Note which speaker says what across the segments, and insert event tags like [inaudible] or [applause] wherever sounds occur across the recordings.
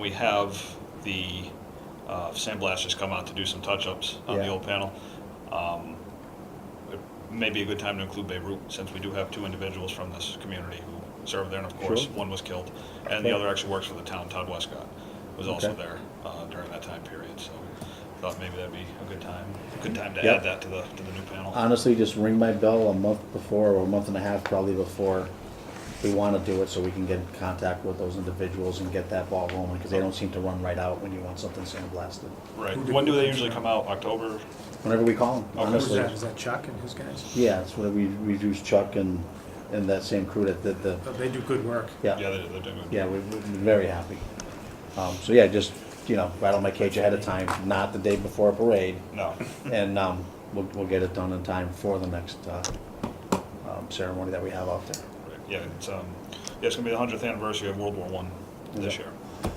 Speaker 1: We have the uh, sandblasters come out to do some touch-ups on the
Speaker 2: Yeah.
Speaker 1: old panel. Um, it May be a good time to include Beirut, since we do have two individuals from this community who served there, and of course,
Speaker 2: Sure.
Speaker 1: one was killed. And the
Speaker 2: Okay.
Speaker 1: other actually works for the town, Todd Westcott, was also
Speaker 2: Okay.
Speaker 1: there uh, during that time period, so thought maybe that'd be a good time, good time to
Speaker 2: Yeah. Uh,
Speaker 1: add that to the, to the new panel.
Speaker 2: honestly just ring my bell a month before or a month and a half probably before we want to do it so we can get in contact with those individuals and get that ball rolling because they don't seem to run right out when you want something sandblasted.
Speaker 1: Right, when do they usually come out, October?
Speaker 2: Whenever we call them,
Speaker 1: Okay.
Speaker 3: Who's
Speaker 2: honestly.
Speaker 3: that? Is that Chuck and his guys?
Speaker 2: Yeah, it's when we, we use Chuck and, and that same crew that did the,
Speaker 3: Oh, They do good work.
Speaker 1: Yeah,
Speaker 2: yeah,
Speaker 1: they- they're doing.
Speaker 2: yeah, we- we're very happy. Um, so yeah, just, you know, right on my cage ahead of time, not the day before a parade.
Speaker 1: No,
Speaker 2: And, um, we'll, we'll get it done in time for the next, uh, um, ceremony that we have out there.
Speaker 1: Right, Yeah, it's, um, yeah, it's gonna be the hundredth anniversary of World War One this
Speaker 2: Yeah.
Speaker 1: year,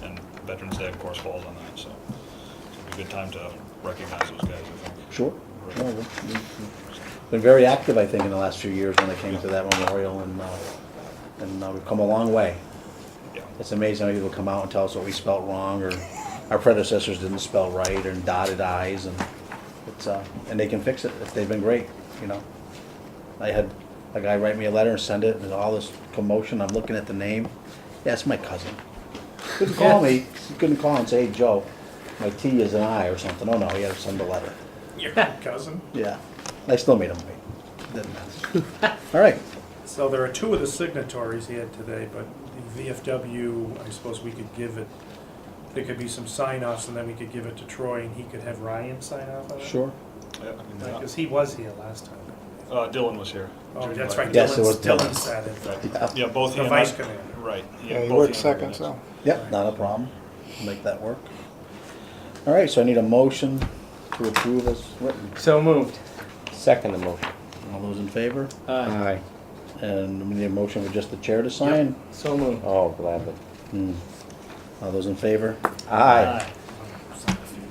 Speaker 1: and Veterans Day, of course, falls on that, so it's gonna be a good time to recognize those guys, I think.
Speaker 2: Sure. No, we- we- we've Been very active, I think, in the last few years when it came to that memorial and, uh, and uh, we've come a long way.
Speaker 1: Yeah,
Speaker 2: It's amazing how people come out and tell us what we spelt wrong or our predecessors didn't spell right and dotted i's and it's, uh, and they can fix it. It's- They've been great, you know? I had a guy write me a letter and send it and all this commotion. I'm looking at the name. Yeah, it's my cousin. Couldn't call me, he couldn't call and say, hey, Joe, my T is an I or something. Oh, no, he had to send a letter.
Speaker 3: [laughs] Your cousin.
Speaker 2: Yeah, I still made him wait. Didn't matter. All right,
Speaker 3: So there are two of the signatories he had today, but the VFW, I suppose we could give it, there could be some sign offs and then we could give it to Troy and he could have Ryan sign off on it.
Speaker 2: sure.
Speaker 1: yeah, I mean,
Speaker 3: Because he was here last time.
Speaker 1: uh, uh, Dylan was here.
Speaker 3: Oh, that's right,
Speaker 2: Yes, it
Speaker 3: Dylan,
Speaker 2: was Dylan.
Speaker 3: Dylan sat in.
Speaker 1: Right. Yeah, both.
Speaker 3: The
Speaker 1: EMS
Speaker 3: vice commander.
Speaker 1: Right.
Speaker 4: Yeah, he
Speaker 1: both
Speaker 4: worked
Speaker 1: EMS.
Speaker 4: second, so.
Speaker 2: Yep, not a problem. Make that work. All right, so I need a motion to approve as written.
Speaker 5: So moved. Second the motion.
Speaker 2: All those in favor?
Speaker 5: Aye.
Speaker 2: And we need a motion with just the chair to sign?
Speaker 5: So moved. Oh, gladly.
Speaker 2: Hmm. All those in favor? Aye.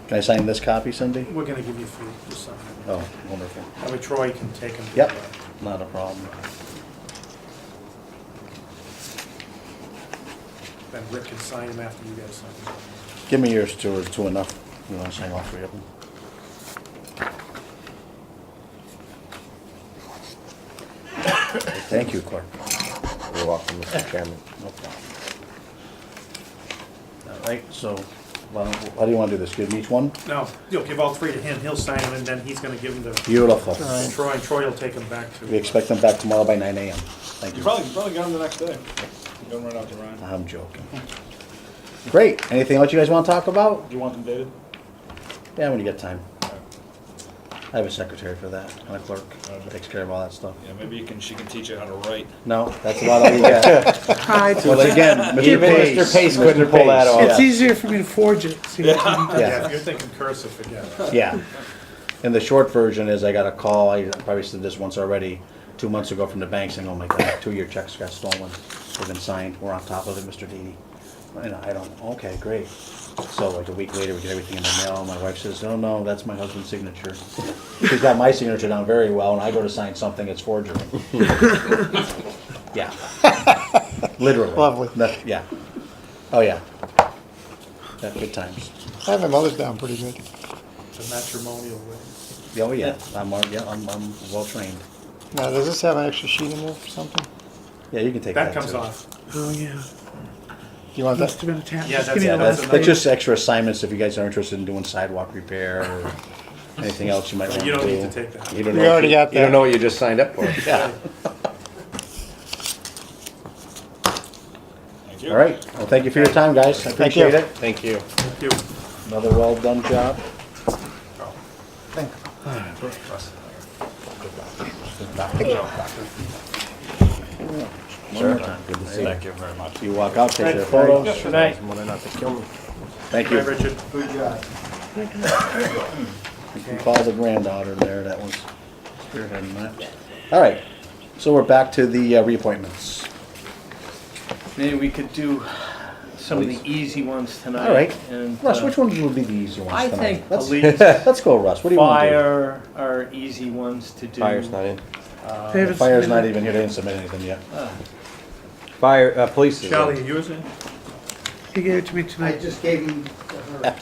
Speaker 2: Can I sign this copy, Cindy?
Speaker 3: We're gonna give you food, just something.
Speaker 2: Oh, wonderful.
Speaker 3: That way Troy can take him. to
Speaker 2: Yep,
Speaker 3: the-
Speaker 2: not a problem.
Speaker 3: Then Rick can sign him after you guys sign him.
Speaker 2: Give me yours, two or two enough. You want to sign all three of them? Thank you, clerk.
Speaker 5: You're welcome, Mr. Chairman.
Speaker 2: No problem. All right, so, well, how do you want to do this? Give me each one?
Speaker 3: No, you'll give all three to him, he'll sign them, and then he's gonna give them to
Speaker 2: Beautiful.
Speaker 3: Troy, and Troy will take them back to.
Speaker 2: We expect them back tomorrow by nine AM. Thank
Speaker 1: You
Speaker 2: you.
Speaker 1: probably, you probably got him the next day. You got him right out to Ryan.
Speaker 2: I'm joking. Great. Anything else you guys want to talk about?
Speaker 1: Do you want them dated?
Speaker 2: Yeah, when you get time. I have a secretary for that and a clerk. Takes care of all that stuff.
Speaker 1: Yeah, maybe you can, she can teach you how to write.
Speaker 2: No, that's about all you get.
Speaker 5: [laughs]
Speaker 6: Hi, it's-
Speaker 2: Well, again, Mr.
Speaker 5: Even
Speaker 2: Pace.
Speaker 5: Mr. Pace couldn't pull that off.
Speaker 6: it's
Speaker 2: yeah.
Speaker 6: easier for me to forge it. See,
Speaker 3: Yeah, if
Speaker 2: Yeah,
Speaker 3: you're thinking cursive, forget it.
Speaker 2: yeah. And the short version is I got a call, I probably said this once already, two months ago from the bank saying, oh my God, two-year checks got stolen. They've been signed, we're on top of it, Mr. Didi. And I don't, okay, great. So like a week later, we get everything in the mail, my wife says, oh no, that's my husband's signature. She's got my signature down very well, and I go to sign something, it's forgery. Yeah. Literally.
Speaker 4: Lovely.
Speaker 2: That- Yeah. Oh, yeah. Yeah, good times.
Speaker 4: I have my mother's down pretty good.
Speaker 3: It's a matrimonial way.
Speaker 2: Oh, yeah, I'm, uh, yeah, I'm, I'm well trained.
Speaker 4: Now, does this have an extra sheet in there for something?
Speaker 2: Yeah, you can take that.
Speaker 3: That comes
Speaker 2: too.
Speaker 3: off.
Speaker 6: oh yeah,
Speaker 4: Do you want
Speaker 6: must
Speaker 4: that?
Speaker 6: have been attached.
Speaker 3: Yeah,
Speaker 6: Just
Speaker 3: that's-
Speaker 6: give me
Speaker 3: yeah,
Speaker 6: the
Speaker 2: That's,
Speaker 6: last
Speaker 3: That's
Speaker 2: that's
Speaker 3: another-
Speaker 2: just extra assignments if you guys are interested in doing sidewalk repair or anything else you might want to
Speaker 3: You
Speaker 2: do.
Speaker 3: don't need to take that.
Speaker 5: You don't
Speaker 4: We
Speaker 5: know if
Speaker 4: already
Speaker 5: you-
Speaker 4: got
Speaker 5: You
Speaker 4: that.
Speaker 5: don't know what you just signed up for.
Speaker 2: Yeah,
Speaker 1: Thank you.
Speaker 2: all right. Well, thank you for your time, guys. I
Speaker 4: Thank you.
Speaker 2: appreciate it.
Speaker 5: Thank you.
Speaker 3: Thank you.
Speaker 2: Another well-done job. One more time.
Speaker 5: Good to see you.
Speaker 1: Thank you very much.
Speaker 2: You walk out, take your photos.
Speaker 5: Good night. More than enough to kill me.
Speaker 2: Thank
Speaker 3: Bye,
Speaker 2: you.
Speaker 3: Richard. Good job.
Speaker 2: You can call the granddaughter there, that was spearheading that. All right, so we're back to the uh, reappointments.
Speaker 7: Maybe we could do some of the easy ones tonight.
Speaker 2: All right,
Speaker 7: And
Speaker 2: Russ,
Speaker 7: uh,
Speaker 2: which ones would be the easy ones
Speaker 7: I
Speaker 2: tonight?
Speaker 7: think
Speaker 2: Let's- [laughs]
Speaker 7: police,
Speaker 2: Let's go, Russ, what do you want to do?
Speaker 7: Fire are easy ones to do.
Speaker 5: Fire's not in.
Speaker 7: Uh,
Speaker 6: David's-
Speaker 2: Fire's not even here, they didn't submit anything yet.
Speaker 7: uh,
Speaker 5: Fire, uh, police is in.
Speaker 3: Charlie, are yours in?
Speaker 6: He
Speaker 8: She gave it to me
Speaker 7: I
Speaker 8: tonight.
Speaker 7: just gave them to her.